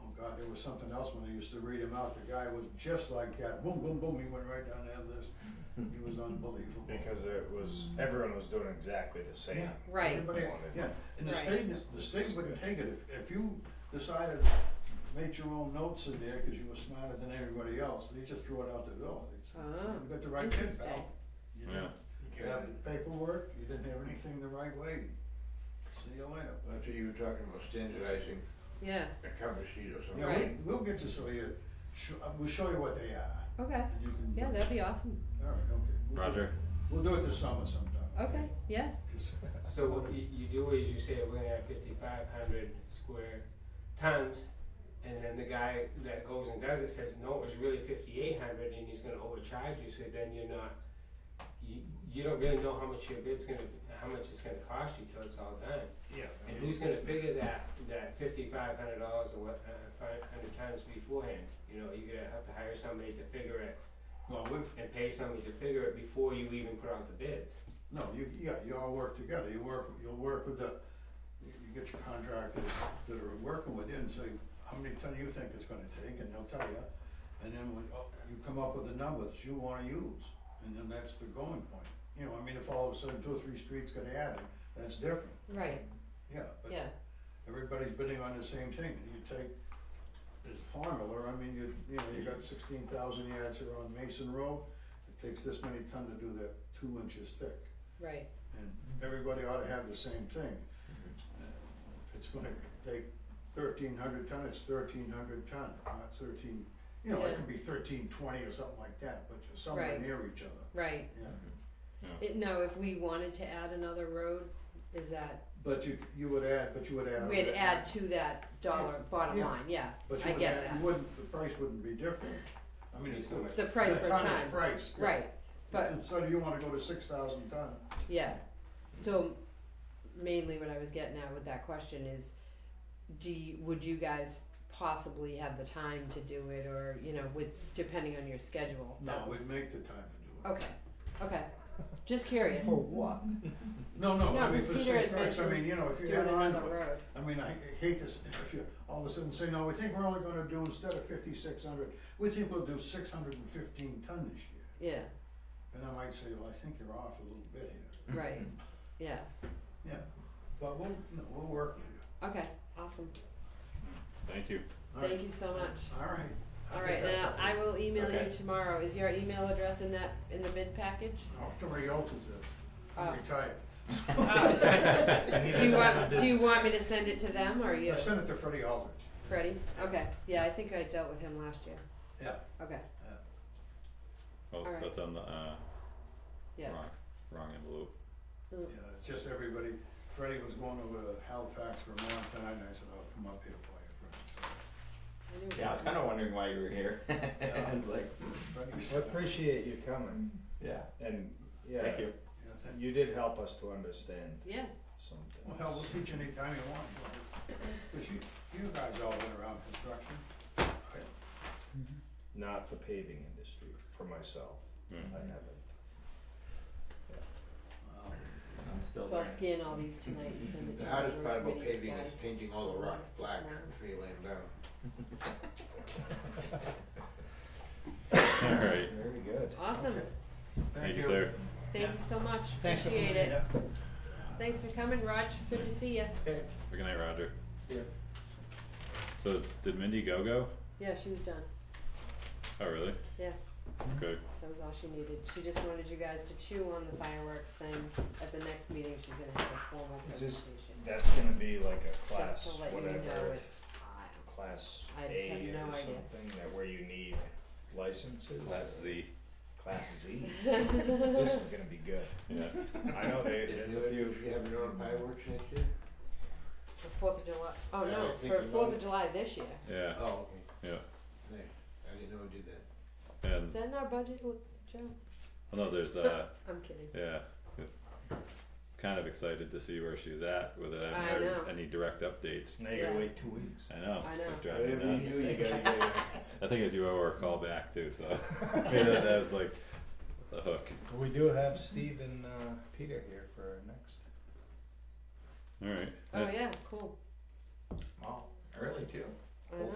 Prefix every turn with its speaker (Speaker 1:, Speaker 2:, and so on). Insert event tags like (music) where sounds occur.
Speaker 1: Oh, was something else when they used to read him out. The guy was just like that. Boom, boom, boom. He went right down that list. He was unbelievable.
Speaker 2: because it was everyone was doing exactly the same.
Speaker 1: Yeah.
Speaker 3: Right,
Speaker 1: Everybody,
Speaker 2: Wanted.
Speaker 1: yeah, and the
Speaker 3: Right.
Speaker 1: state, the state wouldn't take it, if, if you decided, made your own notes in there, cause you were smarter than everybody else, they just threw it out the door, they said,
Speaker 3: Oh,
Speaker 1: you got the right kid,
Speaker 3: interesting.
Speaker 1: pal. You didn't, you have the paperwork, you didn't have anything the right way, see you later.
Speaker 4: That's what you were talking about standardizing
Speaker 3: yeah,
Speaker 4: a cover sheet or something.
Speaker 1: Yeah,
Speaker 3: Right.
Speaker 1: we, we'll get you so you, sh- uh, we'll show you what they are,
Speaker 3: okay,
Speaker 1: and you can.
Speaker 3: yeah, that'd be awesome,
Speaker 1: Alright, okay. We'll do-
Speaker 5: Roger.
Speaker 1: We'll do it this summer sometime.
Speaker 3: okay, yeah,
Speaker 1: 'Cause-
Speaker 6: So what you, you do is you say we're gonna have fifty-five hundred square tons, and then the guy that goes and does it says, no, it was really fifty-eight hundred, and he's gonna overcharge you, so then you're not, you, you don't really know how much your bid's gonna, how much it's gonna cost you till it's all done.
Speaker 1: Yeah. I
Speaker 6: And
Speaker 1: mean,
Speaker 6: who's gonna figure that, that fifty-five hundred dollars or what, uh, five hundred tons beforehand? You know, you're gonna have to hire somebody to figure it,
Speaker 1: Well, we've,
Speaker 6: and pay somebody to figure it before you even put out the bids.
Speaker 1: No, you, yeah, you all work together, you work, you'll work with the, you you get your contractors that are working with you and say, how many ton you think it's gonna take, and they'll tell you. And then when, oh, you come up with the numbers you wanna use, and then that's the going point. You know, I mean, if all of a sudden two or three streets got added, that's different,
Speaker 3: right,
Speaker 1: yeah, but
Speaker 3: yeah,
Speaker 1: everybody's bidding on the same thing, and you take this formula, I mean, you, you know, you got sixteen thousand yards here on Mason Road, it takes this many ton to do that two inches thick
Speaker 3: right,
Speaker 1: and everybody ought to have the same thing. Uh, It's gonna take thirteen hundred ton, it's thirteen hundred ton, not thirteen, you know,
Speaker 3: Yeah.
Speaker 1: it could be thirteen twenty or something like that, but you're somewhere
Speaker 3: Right.
Speaker 1: near each other,
Speaker 3: right.
Speaker 1: yeah.
Speaker 3: It, now, if we wanted to add another road, is that,
Speaker 1: But you, you would add, but you would add.
Speaker 3: we'd add to that dollar bottom
Speaker 1: Yeah.
Speaker 3: line, yeah,
Speaker 1: But
Speaker 3: I
Speaker 1: you would
Speaker 3: get
Speaker 1: add, you
Speaker 3: that.
Speaker 1: wouldn't, the price wouldn't be different, I mean, it's the.
Speaker 3: the price
Speaker 1: the
Speaker 3: per
Speaker 1: tonnage
Speaker 3: time,
Speaker 1: price, yeah.
Speaker 3: right, but,
Speaker 1: And so do you wanna go to six thousand ton,
Speaker 3: yeah, so mainly what I was getting at with that question is, do you, would you guys possibly have the time to do it, or, you know, with, depending on your schedule?
Speaker 1: no,
Speaker 3: That was-
Speaker 1: we'd make the time to
Speaker 3: (laughs)
Speaker 1: do it.
Speaker 3: Okay, okay, just curious.
Speaker 1: what? No, no,
Speaker 3: No,
Speaker 1: I mean,
Speaker 3: 'cause
Speaker 1: for the
Speaker 3: Peter
Speaker 1: same
Speaker 3: had
Speaker 1: price, I
Speaker 3: mentioned
Speaker 1: mean, you know, if you
Speaker 3: doing
Speaker 1: add on to it.
Speaker 3: another road.
Speaker 1: I mean, I hate this, if you all of a sudden say, no, we think we're only gonna do instead of fifty-six hundred, we think we'll do six hundred and fifteen ton this year.
Speaker 4: (laughs)
Speaker 3: Yeah,
Speaker 1: Then I might say, well, I think you're off a little bit here,
Speaker 3: right, yeah,
Speaker 1: yeah, but we'll, no, we'll work with you.
Speaker 3: okay, awesome,
Speaker 5: Thank you.
Speaker 1: All right.
Speaker 3: thank you so much.
Speaker 1: All right. I
Speaker 3: All
Speaker 1: think
Speaker 3: right,
Speaker 1: that's
Speaker 3: now
Speaker 1: the-
Speaker 3: I will email you
Speaker 5: Okay.
Speaker 3: tomorrow. Is your email address in that, in the bid package?
Speaker 1: (laughs) Oh, somebody else is, uh,
Speaker 3: Oh.
Speaker 1: I'm retired.
Speaker 3: (laughs) Do you want, do you want me to send it to them or you?
Speaker 1: I sent it to Freddie Aldrich,
Speaker 3: Freddie? Okay, yeah, I think I dealt with him last year.
Speaker 1: yeah,
Speaker 3: Okay,
Speaker 5: Oh,
Speaker 3: Alright.
Speaker 5: that's on the uh,
Speaker 3: yeah,
Speaker 5: wrong, wrong envelope.
Speaker 3: (laughs)
Speaker 1: yeah, it's just everybody, Freddie was going over to Halifax, Vermont, and I said, I'll come up here for you, Freddie,
Speaker 3: I knew it
Speaker 7: Yeah, I was
Speaker 3: was-
Speaker 7: kind of wondering why you were here. (laughs) and like,
Speaker 1: so Freddie
Speaker 2: I
Speaker 1: said,
Speaker 2: appreciate you coming,
Speaker 7: yeah,
Speaker 2: and yeah,
Speaker 7: thank you.
Speaker 1: yeah, thank
Speaker 2: You did help us to understand
Speaker 3: Yeah,
Speaker 2: some
Speaker 1: Well,
Speaker 2: things.
Speaker 1: hell, we'll teach any time you want, because you, you guys all been around construction.
Speaker 2: Not the paving industry for myself.
Speaker 5: Mm.
Speaker 2: I haven't.
Speaker 1: Wow.
Speaker 7: I'm still
Speaker 3: so I'll
Speaker 7: learning.
Speaker 3: scan all these tonight and send it to
Speaker 4: The
Speaker 3: you.
Speaker 4: hardest part
Speaker 3: Where
Speaker 4: about
Speaker 3: do you
Speaker 4: paving is
Speaker 3: guys-
Speaker 4: painting all the rock black before you lay 'em down.
Speaker 7: (laughs)
Speaker 5: All right.
Speaker 7: Very good.
Speaker 3: Awesome,
Speaker 5: Thank you, sir.
Speaker 3: thank you so much, appreciate it. Thanks for coming, Raj, good to see you.
Speaker 5: Good night, Roger.
Speaker 6: Yeah.
Speaker 5: So did Mindy go go?
Speaker 3: Yeah, she was done,
Speaker 5: Oh, really?
Speaker 3: yeah.
Speaker 5: Okay.
Speaker 3: That was all she needed. She just wanted you guys to chew on the fireworks thing. At the next meeting, she's gonna have a formal
Speaker 2: Is this
Speaker 3: presentation.
Speaker 2: That's gonna be like a
Speaker 3: Just
Speaker 2: class,
Speaker 3: to let you know
Speaker 2: whatever,
Speaker 3: it's hot.
Speaker 2: class
Speaker 3: I have
Speaker 2: A
Speaker 3: no
Speaker 2: or
Speaker 3: idea.
Speaker 2: something that where you need licenses.
Speaker 5: Class Z.
Speaker 2: Class
Speaker 3: (laughs)
Speaker 2: Z. This is gonna be good.
Speaker 5: Yeah.
Speaker 2: I know they, there's
Speaker 4: If you,
Speaker 2: a few,
Speaker 4: if you have your own fireworks next year?
Speaker 3: For Fourth of July, oh
Speaker 4: Yeah, I
Speaker 3: no,
Speaker 4: think
Speaker 3: for
Speaker 4: you
Speaker 3: Fourth
Speaker 4: know.
Speaker 3: of July this year.
Speaker 5: Yeah.
Speaker 4: (laughs) Oh, okay.
Speaker 5: Yeah.
Speaker 4: Nice. I didn't know we did that.
Speaker 5: And
Speaker 3: Is that in our budget, Look, Joe?
Speaker 5: I know there's uh
Speaker 3: I'm kidding.
Speaker 5: yeah. 'cause kind of excited to see where she's at with it. I
Speaker 3: I
Speaker 5: haven't heard
Speaker 3: know.
Speaker 5: any direct updates.
Speaker 2: now you gotta
Speaker 3: Yeah.
Speaker 2: wait two weeks.
Speaker 5: I know.
Speaker 3: I
Speaker 5: it's
Speaker 3: know.
Speaker 5: driving
Speaker 4: Whatever
Speaker 5: nuts.
Speaker 4: you do, you gotta get it.
Speaker 5: I think I do owe her a call back too, so (laughs) maybe that has like the hook.
Speaker 2: We do have Steve and uh, Peter here for our next.
Speaker 5: All right.
Speaker 3: Oh yeah, cool.
Speaker 7: Oh, early too.
Speaker 3: I know.